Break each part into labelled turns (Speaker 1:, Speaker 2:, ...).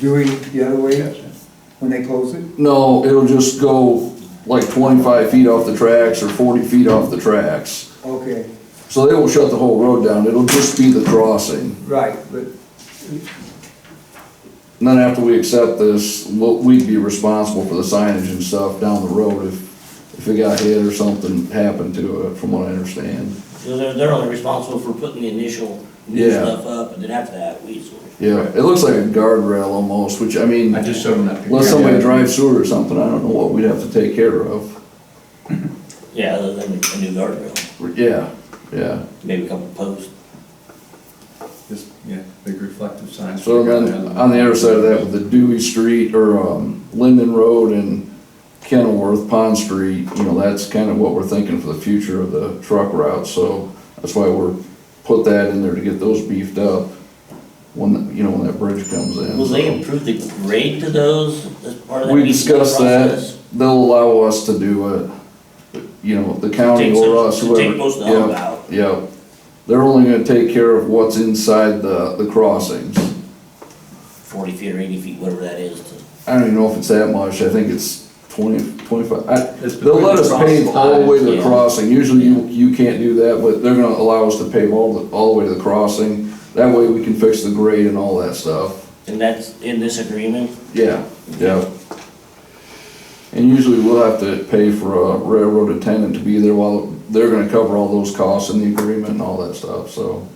Speaker 1: doing the other way when they close it?
Speaker 2: No, it'll just go like twenty-five feet off the tracks or forty feet off the tracks.
Speaker 1: Okay,
Speaker 2: So they won't shut the whole road down, it'll just be the crossing.
Speaker 1: right, but,
Speaker 2: And then after we accept this, we'll, we'd be responsible for the signage and stuff down the road if, if it got hit or something happened to it, from what I understand.
Speaker 3: So they're, they're only responsible for putting the initial new
Speaker 2: Yeah.
Speaker 3: stuff up, and then after that, we sort of.
Speaker 2: Yeah, it looks like a guardrail almost, which, I mean,
Speaker 4: I just showed them that picture.
Speaker 2: unless somebody drives through it or something, I don't know what we'd have to take care of.
Speaker 3: Yeah, other than a new guardrail,
Speaker 2: Yeah, yeah.
Speaker 3: maybe a couple posts.
Speaker 4: Just, yeah, big reflective signs.
Speaker 2: So then, uh, on the other side of that, with the Dewey Street or um, Linden Road and Kenilworth Pond Street, you know, that's kind of what we're thinking for the future of the truck route, so that's why we're, put that in there to get those beefed up when, that- you know, when that bridge comes in.
Speaker 3: Will they improve the grade to those as part of that?
Speaker 2: We
Speaker 3: leasing
Speaker 2: discussed that,
Speaker 3: process?
Speaker 2: they'll allow us to do it, you know, the county
Speaker 3: Take
Speaker 2: or
Speaker 3: some-
Speaker 2: us,
Speaker 3: to
Speaker 2: whoever.
Speaker 3: Take most of the hump
Speaker 2: Yeah,
Speaker 3: out,
Speaker 2: Yeah, they're only gonna take care of what's inside the, the crossings.
Speaker 3: forty feet or eighty feet, whatever that is, to
Speaker 2: I don't even know if it's that much, I think it's twenty, twenty-five, Uh, I,
Speaker 4: It's
Speaker 2: they'll let us pave all the way to the
Speaker 3: yeah.
Speaker 2: crossing, usually you, you can't do that, but they're gonna allow us to pave all the, all the way to the crossing, that way we can fix the grade and all that stuff,
Speaker 3: and that's in this agreement?
Speaker 2: yeah, yeah. And usually we'll have to pay for a railroad attendant to be there while, they're gonna cover all those costs in the agreement and all that stuff, so.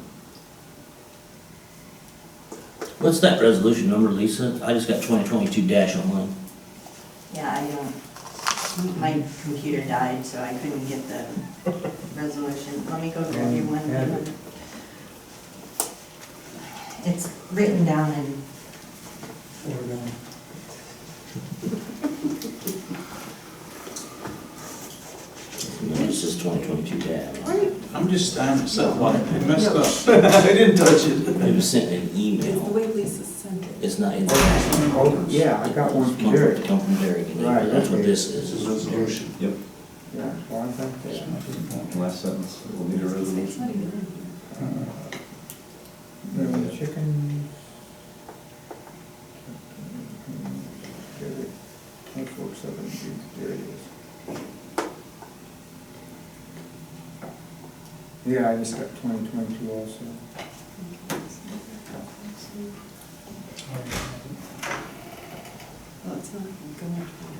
Speaker 3: What's that resolution number, Lisa? I just got twenty twenty-two dash on mine.
Speaker 5: Yeah, I don't, my computer died, so I couldn't get the resolution. Let me go grab you one. It's written down in,
Speaker 3: This is twenty twenty-two dash.
Speaker 6: I'm just standing myself up. I messed up. I didn't touch it.
Speaker 3: It was sent in an email.
Speaker 7: way Lisa sent it.
Speaker 3: It's not in.
Speaker 1: oh, yeah, I got one
Speaker 3: Come
Speaker 1: from Derek.
Speaker 3: Come from Derek, and
Speaker 1: Right,
Speaker 3: that's what
Speaker 1: okay.
Speaker 3: this is.
Speaker 4: Yep,
Speaker 1: Yeah, well, I thought that-
Speaker 4: last sentence, we'll need a resolution.
Speaker 1: uh, Chicken. Derek, 24/7, there it is. Yeah, I just got twenty twenty-two also.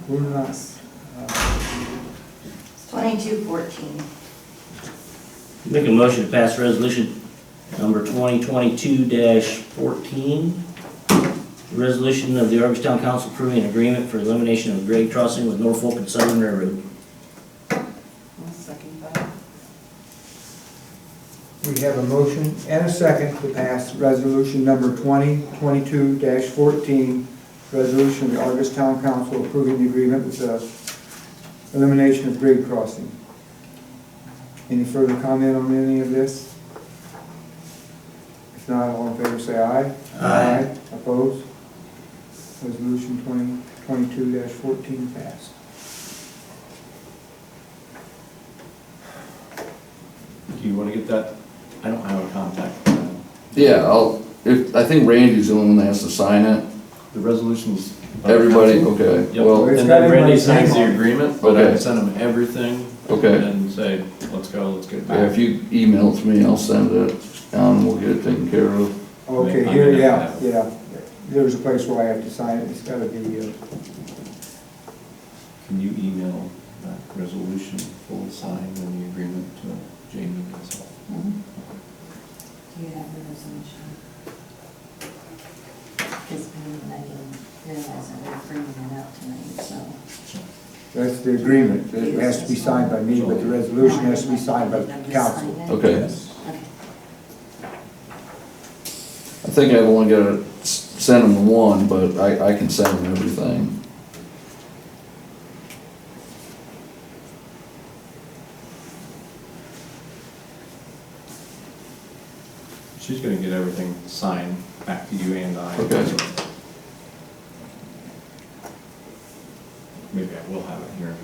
Speaker 1: We're not, uh,
Speaker 5: it's twenty-two fourteen.
Speaker 3: Make a motion to pass resolution number twenty twenty-two fourteen. Resolution of the Argentine Council approving an agreement for elimination of grade crossing with Norfolk and Southern Railroad.
Speaker 7: second that.
Speaker 1: We have a motion and a second to pass resolution number twenty twenty-two fourteen, resolution of the Argus Town Council approving the agreement with the elimination of grade crossing. Any further comment on any of this? If not, all in favor, say aye.
Speaker 3: Aye.
Speaker 1: Opposed? Resolution twenty twenty-two fourteen passed.
Speaker 4: Do you wanna get that? I don't have a contact. for that.
Speaker 2: Yeah, I'll, if, I think Randy's the only one that has to sign it,
Speaker 4: The resolutions.
Speaker 2: everybody, okay,
Speaker 4: Uh, Yep,
Speaker 2: well,
Speaker 1: It's
Speaker 4: and
Speaker 1: got
Speaker 4: then Randy
Speaker 1: everybody's
Speaker 4: signs
Speaker 1: name on
Speaker 4: the
Speaker 1: it.
Speaker 4: agreement, but I
Speaker 2: Okay.
Speaker 4: sent him everything.
Speaker 2: Okay.
Speaker 4: And then say, let's go, let's get it
Speaker 2: Yeah, Uh, if
Speaker 4: back.
Speaker 2: you email it to me, I'll send it, and we'll get it taken care of.
Speaker 1: Okay,
Speaker 4: Yeah,
Speaker 1: here,
Speaker 4: I
Speaker 1: yeah,
Speaker 4: have
Speaker 1: yeah. There's a place where I have to sign it, it's gotta be, uh,
Speaker 4: Can you email that resolution full signed and the agreement to Jamie and myself?
Speaker 5: Do you have the resolution? Because I didn't realize I was bringing it out tonight, so.
Speaker 1: that's the agreement. It has to be signed by me, but the resolution has to be signed by the council.
Speaker 2: Okay.
Speaker 5: Okay.
Speaker 2: I think I've only got to send them one, but I, I can send them everything.
Speaker 4: She's gonna get everything signed back to you and I.
Speaker 2: Okay.
Speaker 4: Maybe I will have it here.